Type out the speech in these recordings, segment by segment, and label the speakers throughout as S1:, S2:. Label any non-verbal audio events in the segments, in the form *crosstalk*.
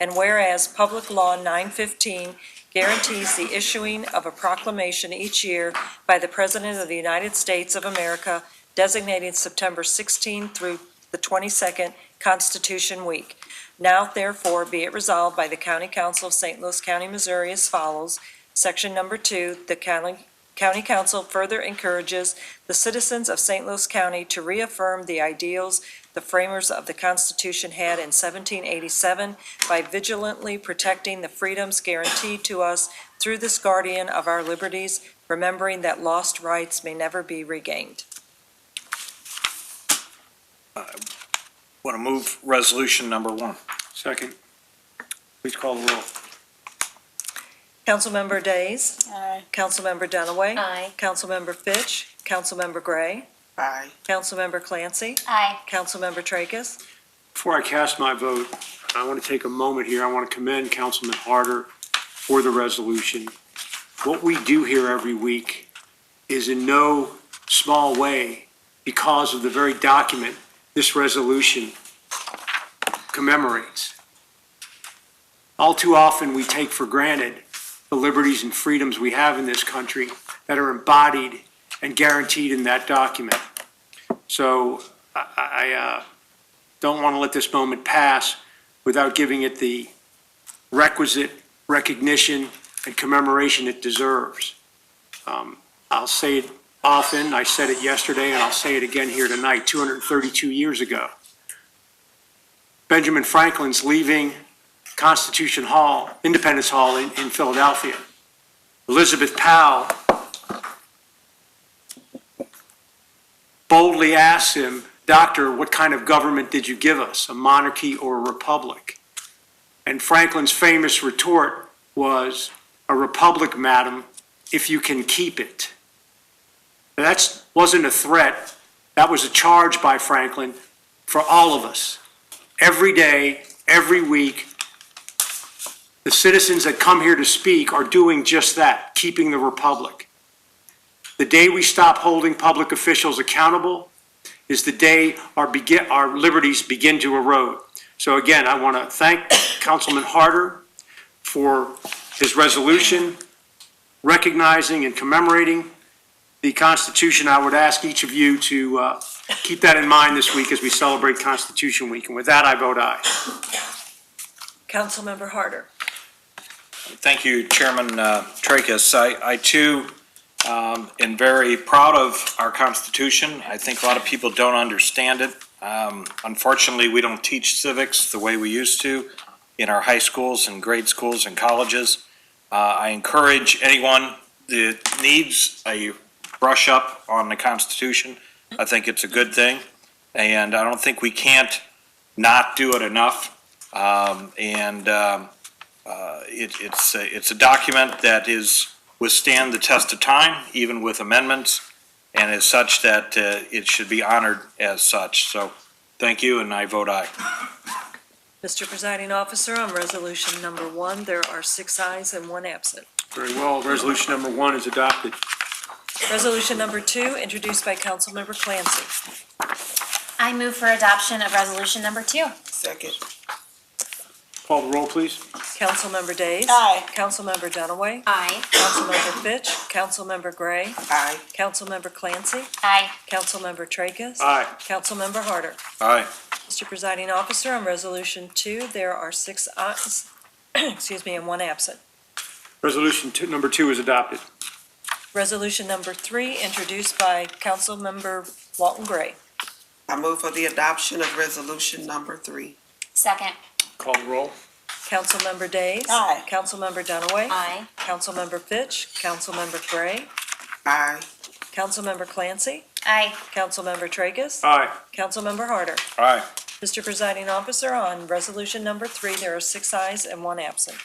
S1: And whereas Public Law 915 guarantees the issuing of a proclamation each year by the President of the United States of America designating September 16 through the 22nd Constitution Week. Now therefore be it resolved by the County Council of St. Louis County, Missouri as follows. Section number two, the county, county council further encourages the citizens of St. Louis County to reaffirm the ideals the framers of the Constitution had in 1787 by vigilantly protecting the freedoms guaranteed to us through this guardian of our liberties, remembering that lost rights may never be regained.
S2: Want to move resolution number one? Second. Please call the roll.
S1: Councilmember Days.
S3: Aye.
S1: Councilmember Dunaway.
S3: Aye.
S1: Councilmember Fitch. Councilmember Gray.
S3: Aye.
S1: Councilmember Clancy.
S3: Aye.
S1: Councilmember Tracus.
S4: Before I cast my vote, I want to take a moment here. I want to commend Councilman Harder for the resolution. What we do here every week is in no small way because of the very document this resolution commemorates. All too often, we take for granted the liberties and freedoms we have in this country that are embodied and guaranteed in that document. So I, I, uh, don't want to let this moment pass without giving it the requisite recognition and commemoration it deserves. Um, I'll say it often, I said it yesterday, and I'll say it again here tonight, 232 years ago. Benjamin Franklin's leaving Constitution Hall, Independence Hall in in Philadelphia. Elizabeth Powell boldly asks him, Doctor, what kind of government did you give us, a monarchy or a republic? And Franklin's famous retort was, A republic, madam, if you can keep it. That wasn't a threat, that was a charge by Franklin for all of us. Every day, every week, the citizens that come here to speak are doing just that, keeping the republic. The day we stop holding public officials accountable is the day our begin, our liberties begin to erode. So again, I want to thank Councilman Harder for his resolution recognizing and commemorating the Constitution. I would ask each of you to uh, keep that in mind this week as we celebrate Constitution Week. And with that, I vote aye.
S1: Councilmember Harder.
S2: Thank you, Chairman uh, Tracus. I, I too um, am very proud of our Constitution. I think a lot of people don't understand it. Um, Unfortunately, we don't teach civics the way we used to in our high schools and grade schools and colleges. Uh, I encourage anyone that needs a brush up on the Constitution. I think it's a good thing, and I don't think we can't not do it enough. Um, And um, uh, it, it's, a- it's a document that is, withstand the test of time, even with amendments, and is such that uh, it should be honored as such. So, thank you, and I vote aye.
S1: Mr. Presiding Officer, on resolution number one, there are six ayes and one absent.
S4: Very well, resolution number one is adopted.
S1: Resolution number two, introduced by Councilmember Clancy.
S5: I move for adoption of resolution number two.
S3: Second.
S4: Call the roll, please.
S1: Councilmember Days.
S3: Aye.
S1: Councilmember Dunaway.
S5: Aye.
S1: Councilmember Fitch. Councilmember Gray.
S3: Aye.
S1: Councilmember Clancy.
S5: Aye.
S1: Councilmember Tracus.
S4: Aye.
S1: Councilmember Harder.
S2: Aye.
S1: Mr. Presiding Officer, on resolution two, there are six ayes, *clears throat* excuse me, and one absent.
S4: Resolution two- number two is adopted.
S1: Resolution number three, introduced by Councilmember Walton Gray.
S3: I move for the adoption of resolution number three.
S5: Second.
S4: Call the roll.
S1: Councilmember Days.
S3: Aye.
S1: Councilmember Dunaway.
S5: Aye.
S1: Councilmember Fitch, Councilmember Gray,
S3: Aye.
S1: Councilmember Clancy,
S5: Aye.
S1: Councilmember Tracus,
S4: Aye.
S1: Councilmember Harder.
S2: Aye.
S1: Mr. Presiding Officer, on resolution number three, there are six ayes and one absent.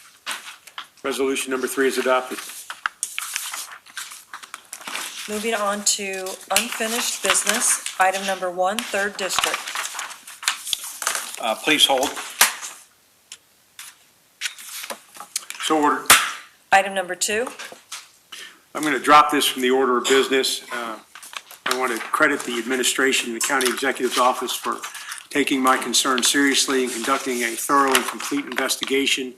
S4: Resolution number three is adopted.
S1: Moving on to unfinished business, item number one, third district.
S2: Uh, Please hold.
S4: So ordered.
S1: Item number two,
S4: I'm going to drop this from the order of business. Uh, I want to credit the administration, the county executive's office for taking my concerns seriously and conducting a thorough and complete investigation